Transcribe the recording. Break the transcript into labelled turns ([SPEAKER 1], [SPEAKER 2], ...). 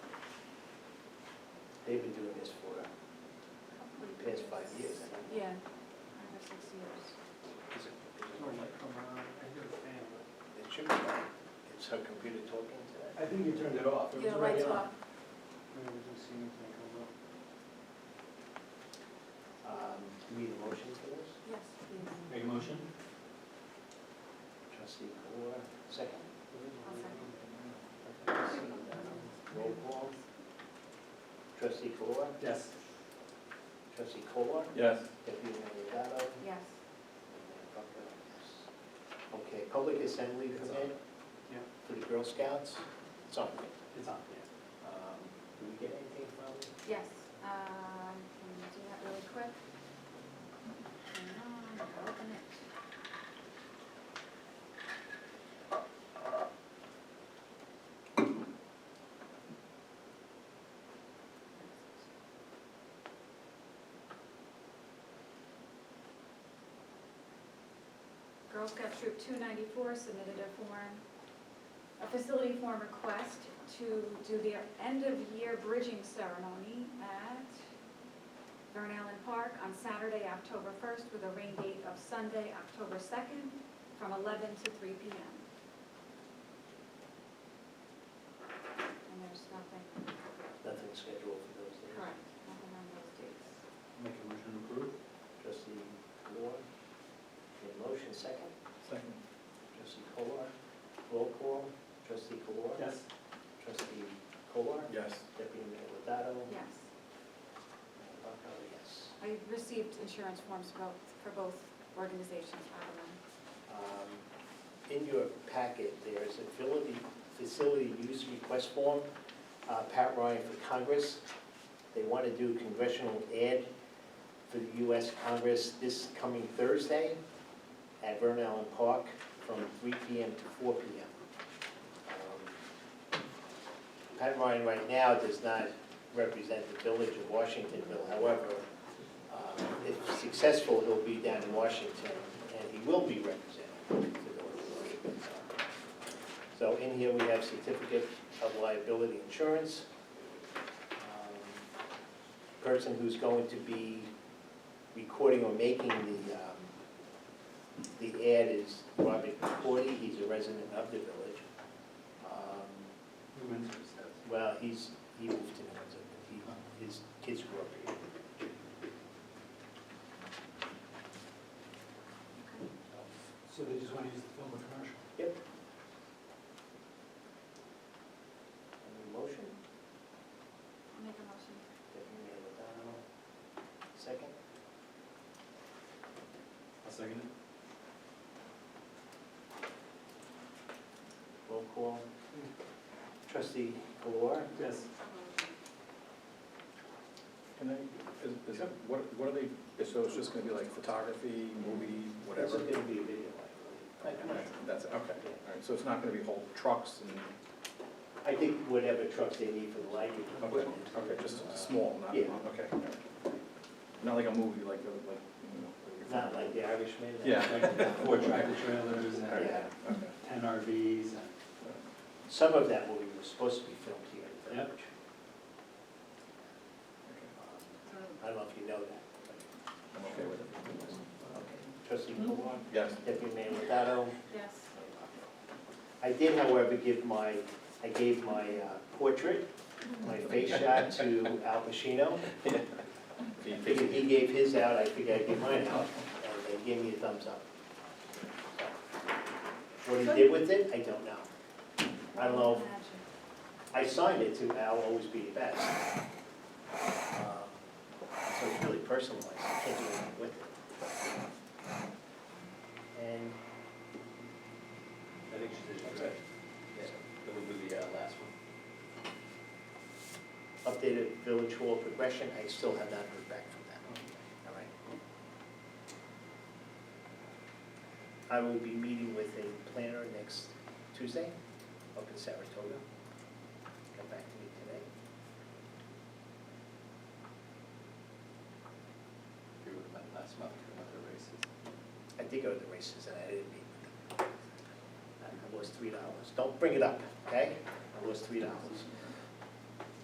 [SPEAKER 1] They've been doing this for uh, the past five years. I think.
[SPEAKER 2] Yeah, five or six years.
[SPEAKER 1] Is it-
[SPEAKER 3] Oh my, come on, I hear the fan.
[SPEAKER 1] It should be on. It's her computer talking to
[SPEAKER 3] I think you turned it off. It
[SPEAKER 2] Yeah,
[SPEAKER 3] was
[SPEAKER 2] lights
[SPEAKER 3] already
[SPEAKER 2] off.
[SPEAKER 3] on. No, we didn't see anything come up.
[SPEAKER 1] that. Um, Do we need a motion for this?
[SPEAKER 2] Yes.
[SPEAKER 4] Make a motion?
[SPEAKER 1] Trustee Moore, second.
[SPEAKER 3] It is already on.
[SPEAKER 1] Roll call. Trustee Moore,
[SPEAKER 4] Yes.
[SPEAKER 1] trustee Kolar,
[SPEAKER 4] Yes.
[SPEAKER 1] deputy mayor Dado,
[SPEAKER 2] Yes.
[SPEAKER 1] and Mayor Buckler, yes. Okay, public assembly permit
[SPEAKER 3] Yeah.
[SPEAKER 1] for the Girl Scouts. It's on.
[SPEAKER 3] It's on, yeah.
[SPEAKER 1] Um, Do we get anything from it?
[SPEAKER 2] Yes, um, can we do that really quick? Hang on, I'll open it. Girl Scout Troop two ninety-four submitted a form, a facility form request to do their end-of-year bridging ceremony at Vern Allen Park on Saturday, October first, with a rain date of Sunday, October second, from eleven to three P M. And there's nothing,
[SPEAKER 1] Nothing scheduled for those days.
[SPEAKER 2] correct, nothing on those dates.
[SPEAKER 4] Make a motion to approve?
[SPEAKER 1] Trustee Moore, made a motion, second.
[SPEAKER 4] Second.
[SPEAKER 1] Trustee Kolar, roll call. Trustee Kolar.
[SPEAKER 3] Yes.
[SPEAKER 1] Trustee Kolar,
[SPEAKER 4] Yes.
[SPEAKER 1] deputy mayor Lovato.
[SPEAKER 2] Yes,
[SPEAKER 1] Mayor Buckler, yes.
[SPEAKER 2] I received insurance forms for both, for both organizations, by the way.
[SPEAKER 1] Um, In your packet, there is a facility, facility use request form, uh, Pat Ryan for Congress. They want to do congressional ad for the US Congress this coming Thursday at Vern Allen Park from three PM to four PM. Um, Pat Ryan right now does not represent the village of Washingtonville, however, um, If successful, he'll be down in Washington, and he will be representing the North of Washington. So in here, we have certificate of liability insurance. Um, Person who's going to be recording or making the, um, the ad is Robert Cordy, he's a resident of the village. Um,
[SPEAKER 4] Who wins this?
[SPEAKER 1] well, he's, he moved to Nantucket, he, his kids grew up here.
[SPEAKER 3] So they just want to use the film commercial?
[SPEAKER 1] Any motion?
[SPEAKER 2] I'll make a motion.
[SPEAKER 1] Deputy Mayor Madonna, second.
[SPEAKER 4] I'll second it.
[SPEAKER 1] Roll call. Trustee Kolar,
[SPEAKER 3] Yes.
[SPEAKER 5] Can I, is- is that, what, what are they, so it's just gonna be like photography, movie,
[SPEAKER 1] this
[SPEAKER 5] whatever?
[SPEAKER 1] is gonna be a video, I believe.
[SPEAKER 5] That's, it, okay, all right, so it's not gonna be whole trucks and,
[SPEAKER 1] I think whatever trucks they need for the lighting.
[SPEAKER 5] okay, okay, just small, not,
[SPEAKER 1] Yeah.
[SPEAKER 5] okay. all right. Not like a movie, like, a- like, you know. like a-
[SPEAKER 1] Not like the Irishman.
[SPEAKER 5] Yeah.
[SPEAKER 3] Like four tractor trailers
[SPEAKER 5] All right,
[SPEAKER 3] and
[SPEAKER 1] Yeah.
[SPEAKER 5] okay.
[SPEAKER 3] ten RVs and.
[SPEAKER 1] Some of that will be, was supposed to be filmed here in the
[SPEAKER 3] Yep.
[SPEAKER 1] village. I don't know if you know that.
[SPEAKER 5] I'm okay with it.
[SPEAKER 1] Okay. Trustee Kolar,
[SPEAKER 5] Yes.
[SPEAKER 1] Deputy Mayor Madonna,
[SPEAKER 2] Yes.
[SPEAKER 1] I did, however, give my, I gave my uh, portrait, my face shot to Al Pacino. I figured he gave his out, I figured I'd give mine out, and they gave me a thumbs up. What he did with it, I don't know. I don't know.
[SPEAKER 2] Imagine.
[SPEAKER 1] I signed it to Al always be the best. Um, So it's really personalized, I can't do anything with it. And
[SPEAKER 4] I think she did,
[SPEAKER 1] Okay.
[SPEAKER 4] right? That would be the uh, last one.
[SPEAKER 1] updated village hall progression, I still have not heard back from them. All right. I will be meeting with a planner next Tuesday up in Saratoga. Come back to me today.
[SPEAKER 4] We would have met last month, we went to the races.
[SPEAKER 1] I did go to the races and I didn't meet with them. I lost three dollars. Don't bring it up, okay? I lost three dollars.